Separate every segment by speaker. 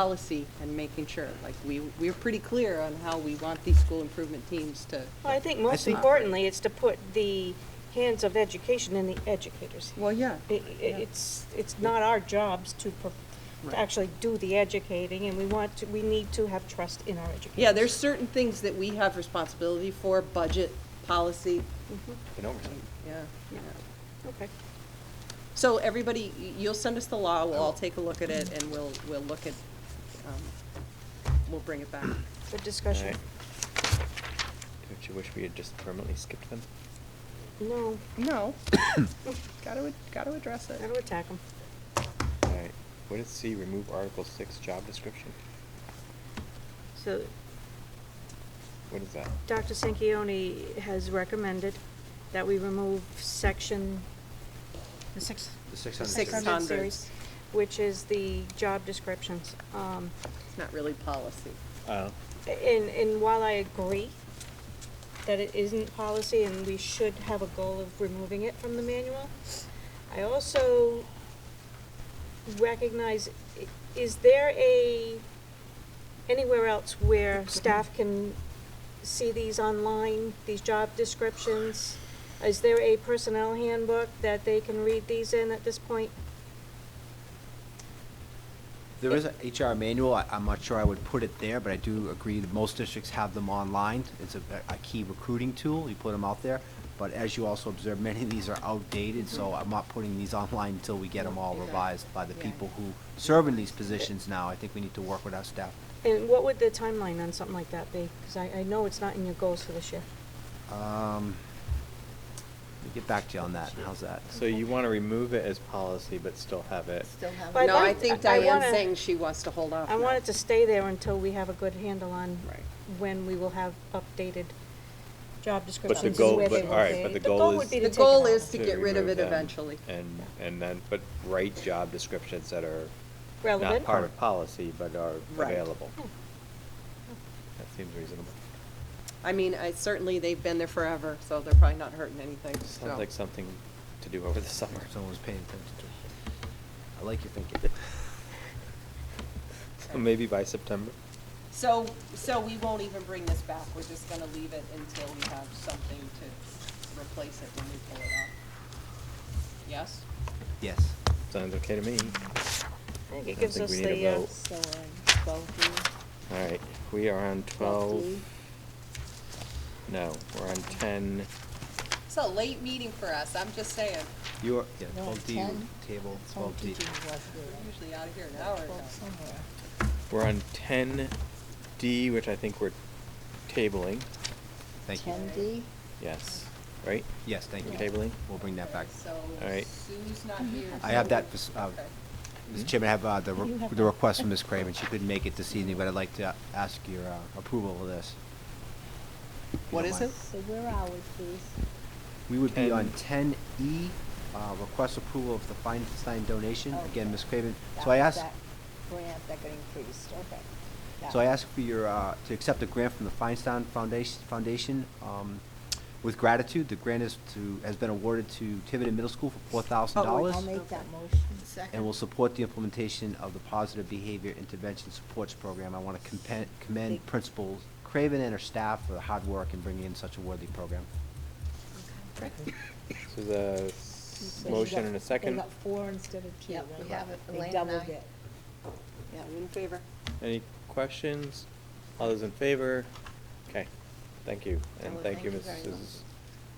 Speaker 1: policy and making sure, like, we, we're pretty clear on how we want these school improvement teams to.
Speaker 2: Well, I think most
Speaker 3: think-
Speaker 2: importantly, it's to put the hands of education in the educators.
Speaker 1: Well, yeah.
Speaker 2: I- i- It's, it's not our jobs to, per-
Speaker 3: Right.
Speaker 2: to actually do the educating, and we want to, we need to have trust in our educators.
Speaker 1: Yeah, there's certain things that we have responsibility for, budget, policy,
Speaker 3: And oversight.
Speaker 1: yeah. yeah.
Speaker 2: Okay.
Speaker 1: So everybody, y- you'll send us the law, we'll all take a look at it, and we'll, we'll look at, um, we'll bring it back.
Speaker 2: Good discussion.
Speaker 3: Alright. Don't you wish we had just permanently skipped them?
Speaker 2: No,
Speaker 1: No. Gotta, gotta address
Speaker 2: I don't attack them.
Speaker 3: Alright, what is C, remove Article six, job description?
Speaker 2: So
Speaker 3: What is that?
Speaker 2: Dr. Sanquioni has recommended that we remove section, the six.
Speaker 4: The 600
Speaker 1: Six
Speaker 4: series.
Speaker 1: hundred.
Speaker 2: series, Which is the job descriptions. Um,
Speaker 1: It's not really policy.
Speaker 3: Oh.
Speaker 2: And, and while I agree that it isn't policy and we should have a goal of removing it from the manual, I also recognize, i- is there a, anywhere else where staff can see these online, these job descriptions? Is there a personnel handbook that they can read these in at this point?
Speaker 4: There is a HR manual, I, I'm not sure I would put it there, but I do agree that most districts have them online. It's a, a key recruiting tool, you put them out there. But as you also observe, many of these are outdated, so I'm not putting these online until we get them all
Speaker 1: Yeah.
Speaker 4: revised by the
Speaker 1: Yeah.
Speaker 4: people who serve in these positions now. I think we need to work with our staff.
Speaker 2: And what would the timeline on something like that be? Because I, I know it's not in your goals for this year.
Speaker 4: Um, we'll get back to you on that, how's that?
Speaker 3: So you wanna remove it as policy, but still have it?
Speaker 2: But I'd
Speaker 1: No, I
Speaker 2: like-
Speaker 1: think
Speaker 2: I- I
Speaker 1: Diane's
Speaker 2: wanna-
Speaker 1: saying she wants to hold
Speaker 3: Uh,
Speaker 1: off.
Speaker 2: I
Speaker 1: now.
Speaker 2: want it to stay there until we have a good handle on
Speaker 1: Right.
Speaker 2: when we will have updated job
Speaker 3: But
Speaker 2: descriptions
Speaker 3: the
Speaker 2: and
Speaker 3: goal,
Speaker 2: where
Speaker 3: but,
Speaker 2: they will
Speaker 3: alright,
Speaker 2: be.
Speaker 3: but the goal
Speaker 2: would
Speaker 3: is.
Speaker 2: be
Speaker 1: The
Speaker 2: to take it
Speaker 1: goal
Speaker 2: out.
Speaker 1: is to get rid of
Speaker 3: remove
Speaker 1: it
Speaker 3: them
Speaker 1: eventually.
Speaker 3: And, and then, but write job descriptions that are not
Speaker 2: Relevant.
Speaker 3: part of policy, but are
Speaker 1: Right.
Speaker 3: available.
Speaker 1: Hmm.
Speaker 2: Yeah.
Speaker 3: That seems reasonable.
Speaker 1: I mean, I, certainly, they've been there forever, so they're probably not hurting anything, so.
Speaker 3: Sounds like something to do over the summer.
Speaker 4: Someone was paying attention to it. I like your thinking.
Speaker 3: So Maybe by September.
Speaker 1: So, so we won't even bring this back, we're just gonna leave it until we have something to replace it when we pull it up? Yes?
Speaker 4: Yes.
Speaker 3: Sounds okay to me.
Speaker 2: I think it
Speaker 3: don't
Speaker 2: gives
Speaker 3: think
Speaker 2: us
Speaker 3: we need a
Speaker 2: the, uh,
Speaker 3: vote. All right, we are on twelve. No, we're on ten.
Speaker 1: It's a late meeting for us, I'm just saying,
Speaker 4: You are, yeah,
Speaker 5: No,
Speaker 4: twelve D,
Speaker 5: 10.
Speaker 4: table,
Speaker 5: Home
Speaker 4: twelve D.
Speaker 5: teaching was
Speaker 1: we're
Speaker 5: there.
Speaker 1: usually out of here an hour ago.
Speaker 5: Well, somewhere.
Speaker 3: We're on ten D, which I think we're tabling.
Speaker 4: Thank you.
Speaker 5: Ten D,
Speaker 3: Yes, right?
Speaker 4: Yes, thank you.
Speaker 3: We're tabling?
Speaker 4: We'll bring that back.
Speaker 1: So
Speaker 3: All right.
Speaker 1: Sue's not here.
Speaker 4: I have that, pers- uh,
Speaker 1: Okay.
Speaker 4: Mr. Chairman, I have uh, the, re-
Speaker 5: You have
Speaker 4: the
Speaker 5: that.
Speaker 4: request from Ms. Craven. She couldn't make it this evening, but I'd like to ask your uh, approval of this. if you
Speaker 1: What
Speaker 4: don't
Speaker 1: is
Speaker 4: mind.
Speaker 1: it?
Speaker 5: so where are we, please?
Speaker 4: We would be
Speaker 3: 10.
Speaker 4: on ten E, uh, request approval of the Feinstein donation. Again,
Speaker 5: Okay.
Speaker 4: Ms. Craven, so
Speaker 5: Oh, That-
Speaker 4: I asked.
Speaker 5: that Grant that got increased, okay. That
Speaker 4: So I
Speaker 5: one.
Speaker 4: ask for your, uh, to accept a grant from the Feinstein Foundation, Foundation, um, with gratitude. The grant is to, has been awarded to Tiverton Middle School for four thousand dollars.
Speaker 5: I'll make that motion.
Speaker 4: and will support the implementation of the Positive Behavior Intervention Supports Program. I want to commend Principal Craven and her staff for the hard work in bringing in such a worthy program.
Speaker 3: So the s-
Speaker 5: So you
Speaker 3: motion
Speaker 5: got-
Speaker 3: and a
Speaker 5: They
Speaker 3: second.
Speaker 5: got four instead of two,
Speaker 6: Yeah,
Speaker 5: right?
Speaker 6: we have it,
Speaker 5: They
Speaker 6: Elaine and
Speaker 5: doubled
Speaker 6: I.
Speaker 5: it.
Speaker 1: Yeah, in favor.
Speaker 3: Any questions? All those in favor? Okay, thank you, and
Speaker 6: Well,
Speaker 3: thank you,
Speaker 6: very
Speaker 3: Mrs.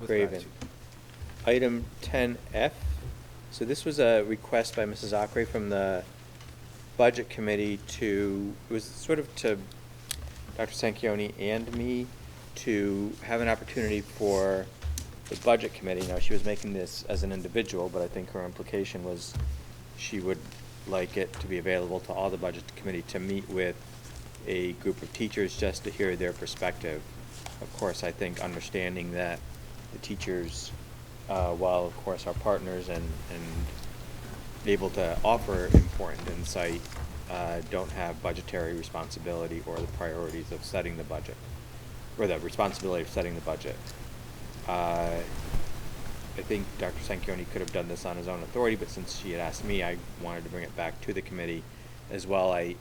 Speaker 4: With
Speaker 3: Craven.
Speaker 4: gratitude.
Speaker 3: Item ten F, so this was a request by Mrs. Ockery from the Budget Committee to, it was sort of to Dr. Sanquioni and me to have an opportunity for the Budget Committee. Now, she was making this as an individual, but I think her implication was she would like it to be available to all the Budget Committee to meet with a group of teachers just to hear their perspective. Of course, I think understanding that the teachers, uh, while of course our partners and, and able to offer important insight, uh, don't have budgetary responsibility or the priorities of setting the budget, or the responsibility of setting the budget. Uh, I think Dr. Sanquioni could have done this on his own authority, but since she had asked me, I wanted to bring it back to the committee as well. I,